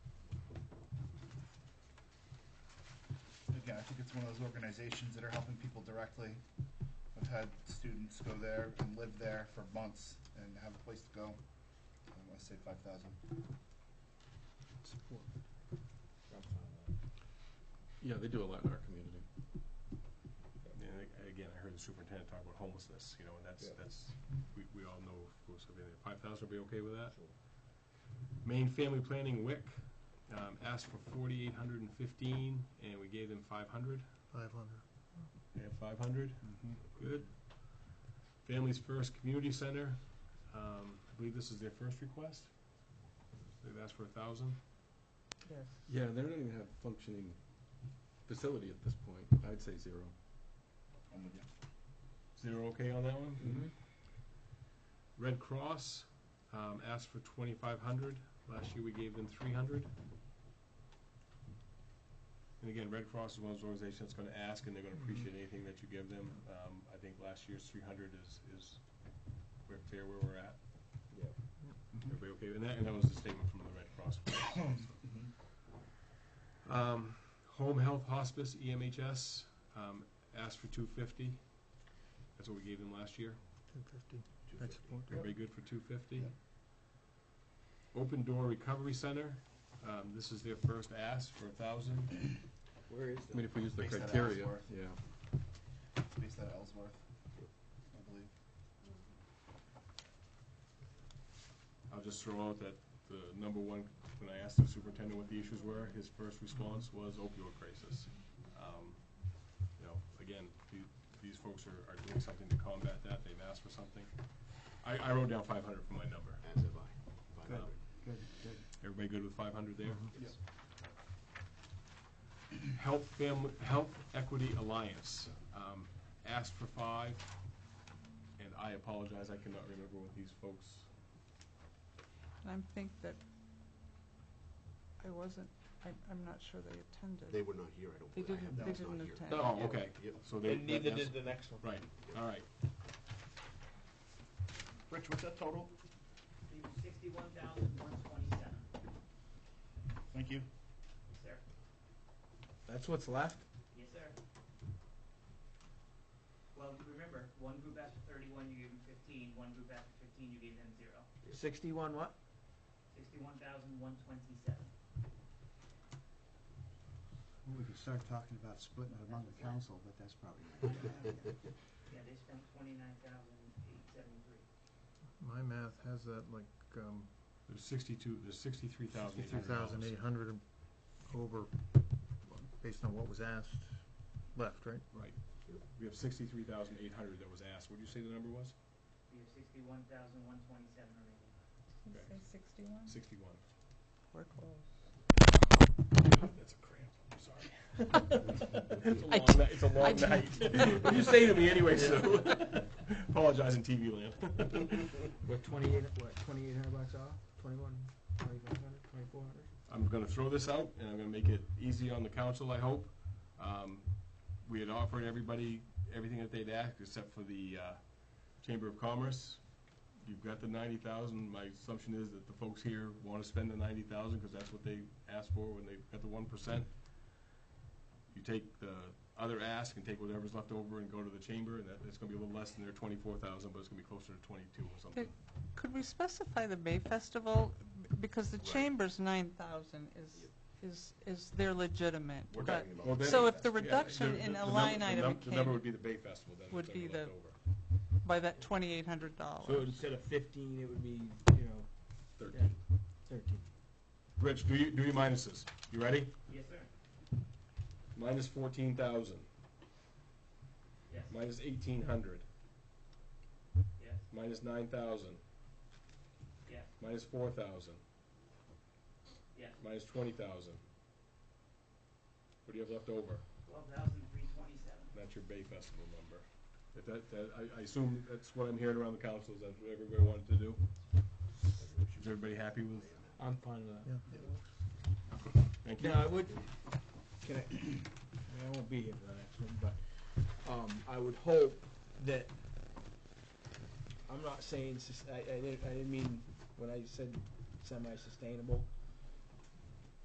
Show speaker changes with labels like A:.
A: I think it's one of those organizations that are helping people directly. I've had students go there and live there for months and have a place to go. I want to say five thousand.
B: Support.
C: Yeah, they do a lot in our community.
D: And ag- again, I heard the superintendent talk about homelessness, you know, and that's,
B: Yeah.
D: that's, we, we all know who's living there. Five thousand would be okay with that? Maine Family Planning WIC, um, asked for forty-eight hundred and fifteen, and we gave them five hundred.
B: Five hundred.
D: They have five hundred?
A: Mm-hmm.
D: Good. Families First Community Center, um, I believe this is their first request. They've asked for a thousand.
E: Yes.
C: Yeah, they don't even have functioning facility at this point. I'd say 0
A: I'm with you.
D: Zero okay on that one? Red Cross, um, asked for twenty-five hundred, last year we gave them three hundred. And again, Red Cross is one of those organizations that's gonna ask and they're gonna appreciate anything that you give them, um, I think last year's three hundred is, is where, fair where we're at.
B: Yep.
A: Mhm.
D: Everybody okay with that, and that was the statement from the Red Cross.
A: Mhm.
D: Um, home health hospice, E EMHS, um, asked for two fifty, that's what we gave them last year.
B: Two fifty. I support that.
D: Everybody good for two fifty?
A: Yep.
D: Open Door Recovery Center, um, this is their first ask for a thousand.
B: Where is
C: I mean, if we use the
A: Based out of
C: criteria,
A: Ellsworth.
C: yeah.
A: It's based out of Ellsworth, I believe.
D: I'll just throw out that the number one, when I asked the superintendent what the issues were, his first response was opioid crisis. Um, You know, again, the- these folks are, are doing something to combat that, they've asked for something. I, I wrote down five hundred for my number.
F: As have I. Mm-hmm.
D: Good, Everybody good with five hundred there?
A: Yes.
D: Health Family, Health Equity Alliance, um, asked for five, and I apologize, I cannot remember what these folks,
E: And I think that I wasn't, I, I'm not sure they attended.
F: They were not here, I don't
E: They
F: believe. I
E: didn't-
F: have-
A: they
F: it's not
E: didn't
F: here.
E: attend.
D: oh, okay,
F: Yep.
D: so they.
B: And neither
D: that's-
B: did the next one.
D: Right, all right,
A: Rich, what's that total?
G: Sixty-one thousand, one twenty-seven,
A: Thank you.
G: yes, sir,
C: That's what's left?
G: yes, sir. Well, remember, one group asked for thirty-one, you gave them fifteen. One group asked for fifteen, you gave them zero.
B: Sixty-one what?
G: Sixty-one thousand, one twenty-seven.
H: We could start talking about splitting it among the council, but that's probably not gonna happen.
G: Yeah, they spent twenty-nine thousand, eight seventy-three.
B: My math has that like, um,
D: there's sixty-two, there's sixty-three thousand eight
B: fifty-two
D: hundred
B: thousand eight hundred over, based on what was asked, left, right?
D: Right, we have sixty-three thousand eight hundred that was asked, what did you say the number was?
G: We have sixty-one thousand, one twenty-seven remaining.
E: Did it say sixty-one?
D: Sixty-one.
E: We're close.
D: That's a cramp, I'm sorry. It's a long night, it's a long night. What'd you say to me anyway, Sue? Apologize in TV land.
B: We're twenty-eight, what, twenty-eight hundred bucks off? Twenty-one, twenty-five hundred, twenty-four hundred?
D: I'm gonna throw this out, and I'm gonna make it easy on the council, I hope. Um, we had offered everybody everything that they'd asked, except for the, uh, Chamber of Commerce. You've got the ninety thousand, my assumption is that the folks here wanna spend the ninety thousand, cause that's what they asked for when they got the one percent. You take the other ask and take whatever's left over and go to the chamber, and that, it's gonna be a little less than their twenty-four thousand, but it's gonna be closer to twenty-two or something.
E: Could we specify the Bay Festival, B- because the
F: Right.
E: Chamber's nine thousand is, is, is, they're legitimate,
F: We're
E: but
F: talking
D: Well,
F: about.
D: then-
E: So if the
D: Yeah,
E: reduction
D: the-
E: in
D: the
E: a
D: number-
E: line
D: the
E: item
D: num- The number
E: came-
D: would be the Bay Festival, then,
E: would
D: if there's
E: be
D: any
E: the-
D: left over.
E: by that twenty-eight hundred dollars.
B: So instead of fifteen, it would be, you know,
D: Thirteen.
B: thirteen.
D: Rich, do you, do your minuses. You ready?
G: Yes, sir,
D: Minus fourteen thousand,
G: yes,
D: minus eighteen hundred,
G: yes,
D: minus nine thousand,
G: yes,
D: minus four thousand,
G: yes,
D: minus twenty thousand. What do you have left over?
G: twelve thousand, three twenty-seven.
D: That's your Bay Festival number. If that, that, I, I assume that's what I'm hearing around the council, is that's what everybody wanted to do? Is everybody happy with?
B: I'm fine with that.
D: Thank you.
B: Now, I would, can I, I mean, I won't be here for the next one, but, um, I would hope that, I'm not saying, sus- I, I didn't, I didn't mean, when I said semi-sustainable,